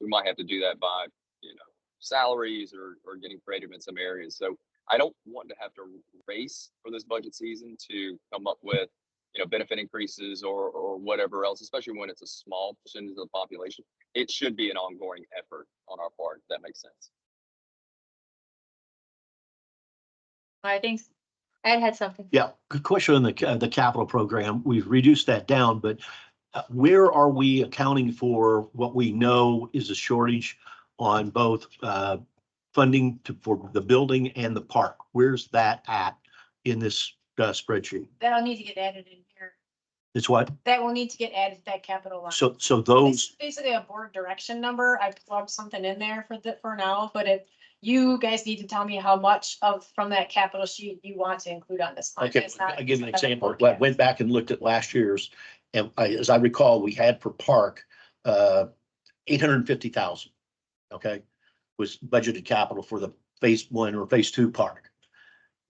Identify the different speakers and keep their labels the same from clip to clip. Speaker 1: we might have to do that by, you know, salaries or, or getting creative in some areas. So I don't want to have to race for this budget season to come up with, you know, benefit increases or, or whatever else, especially when it's a small percentage of the population. It should be an ongoing effort on our part. if That makes sense.
Speaker 2: I think Ed had something.
Speaker 3: Yeah, good question on the, ca- the capital program. We've reduced that down, but uh, where are we accounting for what we know is a shortage on both uh, funding to, for the building and the park? Where's that at in this uh, spreadsheet?
Speaker 2: That'll need to get added in here.
Speaker 3: It's what?
Speaker 2: That will need to get added to that capital line.
Speaker 3: So, so
Speaker 2: It's
Speaker 3: those,
Speaker 2: basically a board direction number. I plugged something in there for the, for now, but if you guys need to tell me how much of, from that capital sheet you want to include on this. line.
Speaker 3: okay,
Speaker 2: It's not-
Speaker 3: I give an
Speaker 2: it's not a
Speaker 3: example. I
Speaker 2: forecast.
Speaker 3: went back and looked at last year's, and I, as I recall, we had for park uh, eight hundred and fifty thousand. Okay, was budgeted capital for the phase one or phase two park.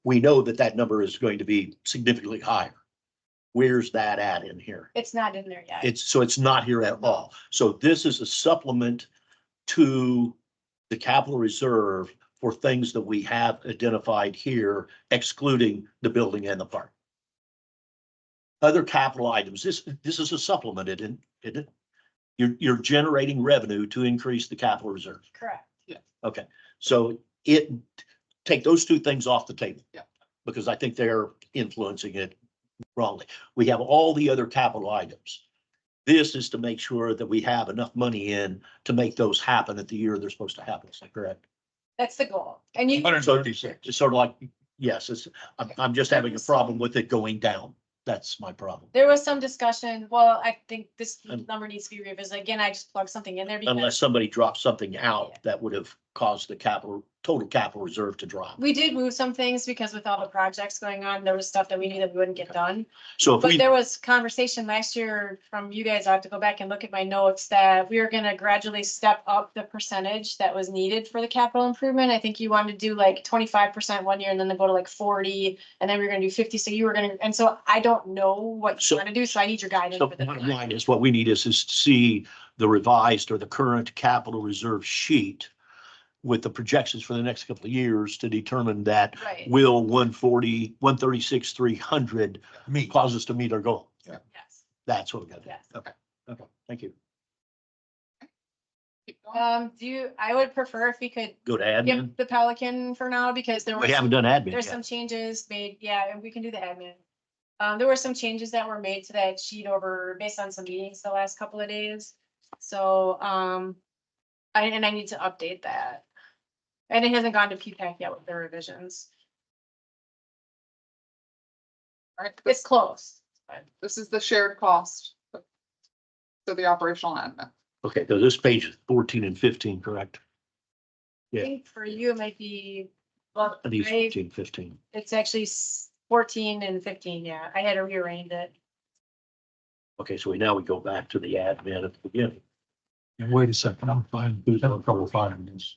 Speaker 3: We know that that number is going to be significantly higher. Where's that at in here?
Speaker 2: It's not in there yet.
Speaker 3: It's, so it's not here at all. So this is a supplement to the capital reserve for things that we have identified here, excluding the building and the park. Other capital items, this, this is a supplement, it, isn't- it, isn't- you're, you're generating revenue to increase the capital reserve.
Speaker 2: Correct.
Speaker 3: Okay, so it, take those two things off the table.
Speaker 4: Yeah.
Speaker 3: Because I think they're influencing it wrongly. We have all the other capital items. This is to make sure that we have enough money in to make those happen at the year they're supposed to happen. Is that correct?
Speaker 2: That's the goal. And you,
Speaker 4: Hundred thirty-six.
Speaker 3: It's sort of like, yes, it's, I'm, I'm just having a problem with it going down. That's my problem.
Speaker 2: there was some discussion, well, I think this
Speaker 3: Um,
Speaker 2: number needs to be revisited. Again, I just plugged something in there because
Speaker 3: Unless somebody drops something out that would have caused the capital, total capital reserve to drop.
Speaker 2: we did move some things because with all the projects going on, there was stuff that we knew that we wouldn't get done.
Speaker 3: So if
Speaker 2: But
Speaker 3: we,
Speaker 2: there was conversation last year from you guys, I have to go back and look at my notes, that we were gonna gradually step up the percentage that was needed for the capital improvement. I think you wanted to do like twenty-five percent one year and then they go to like forty, and then we are gonna do fifty, so you were gonna, and so I don't know what
Speaker 3: So-
Speaker 2: you wanna do, so I need your guidance.
Speaker 3: so
Speaker 2: for this.
Speaker 3: bottom line is what we need is, is to see the revised or the current capital reserve sheet with the projections for the next couple of years to determine that
Speaker 2: Right,
Speaker 3: will 140, 136, 300
Speaker 4: Me.
Speaker 3: cause us to meet our goal.
Speaker 2: yes,
Speaker 3: That's what we got to do.
Speaker 2: yes.
Speaker 3: Okay, okay, thank you.
Speaker 2: Um, do you, I would prefer if we could
Speaker 3: Go to
Speaker 2: skip
Speaker 3: admin.
Speaker 2: the Pelican for now, because there was.
Speaker 3: We
Speaker 2: some-
Speaker 3: haven't done admin
Speaker 2: There's
Speaker 3: yet.
Speaker 2: some changes made, yeah, and we can do the admin. Um, there were some changes that were made to that sheet over, based on some meetings the last couple of days. So, um, I, and I need to update that. And it hasn't gone to P-PAC yet with the revisions.
Speaker 4: Alright,
Speaker 2: It's close. but
Speaker 4: This is the shared cost. So the operational admin.
Speaker 3: Okay, so this page is 14 and 15, correct?
Speaker 2: I
Speaker 3: Yeah.
Speaker 2: think for you, it might be, well,
Speaker 3: Are These
Speaker 2: I-
Speaker 3: 14, 15.
Speaker 2: it's actually s- fourteen and fifteen, yeah. I had to rearrange it.
Speaker 3: Okay, so we now we go back to the admin at the beginning.
Speaker 5: And wait a second, I'm finding, there's no trouble finding this.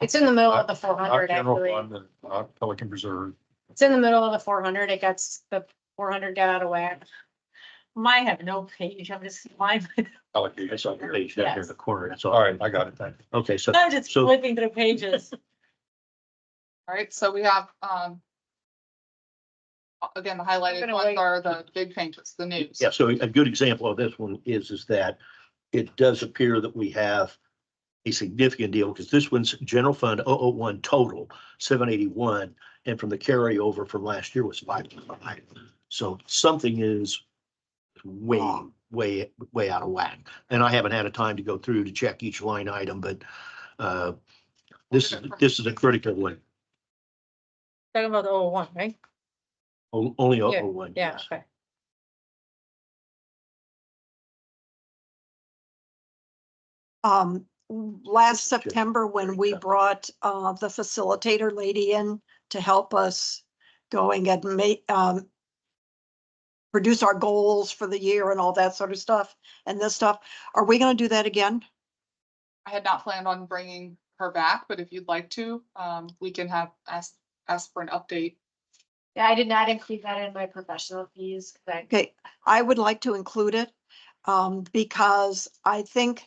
Speaker 2: It's in the middle of the four
Speaker 5: Our
Speaker 2: hundred,
Speaker 5: general
Speaker 2: actually.
Speaker 5: fund and our Pelican Reserve.
Speaker 2: It's in the middle of the four hundred, it got, s- the four hundred got out of whack. Mine have no page, I'm just, mine,
Speaker 5: allocation.
Speaker 3: That's on the page down here in the corner. That's all.
Speaker 5: All right, I got it, thank you.
Speaker 3: Okay, so
Speaker 2: I'm just
Speaker 3: Uh, So-
Speaker 2: flipping through pages.
Speaker 4: Alright, so we have, um. Again, the highlighted
Speaker 2: gonna
Speaker 4: ones
Speaker 2: wait.
Speaker 4: are the big changes, the news.
Speaker 3: Yeah, so a good example of this one is, is that it does appear that we have a significant deal, because this one's general fund 001 total, seven eighty-one, and from the carryover from last year was five. So something is way, way, way out of whack. And I haven't had a time to go through to check each line item, but uh, this, is this is a critical one,
Speaker 2: Talking about the old one, right?
Speaker 3: O- only 001.
Speaker 2: Yeah,
Speaker 3: yes.
Speaker 2: okay.
Speaker 6: Um, last
Speaker 3: Sure.
Speaker 6: September, when
Speaker 3: Very
Speaker 6: we
Speaker 3: tough.
Speaker 6: brought, uh, the facilitator lady in to help us going and make, um, produce our goals for the year and all that sort of stuff and this stuff. Are we gonna do that again?
Speaker 4: I had not planned on bringing her back, but if you'd like to, um, we can have, ask, ask for an update.
Speaker 2: Yeah, I did not include that in my professional fees, 'cause I-
Speaker 6: Okay, I would like to include it, um, because I think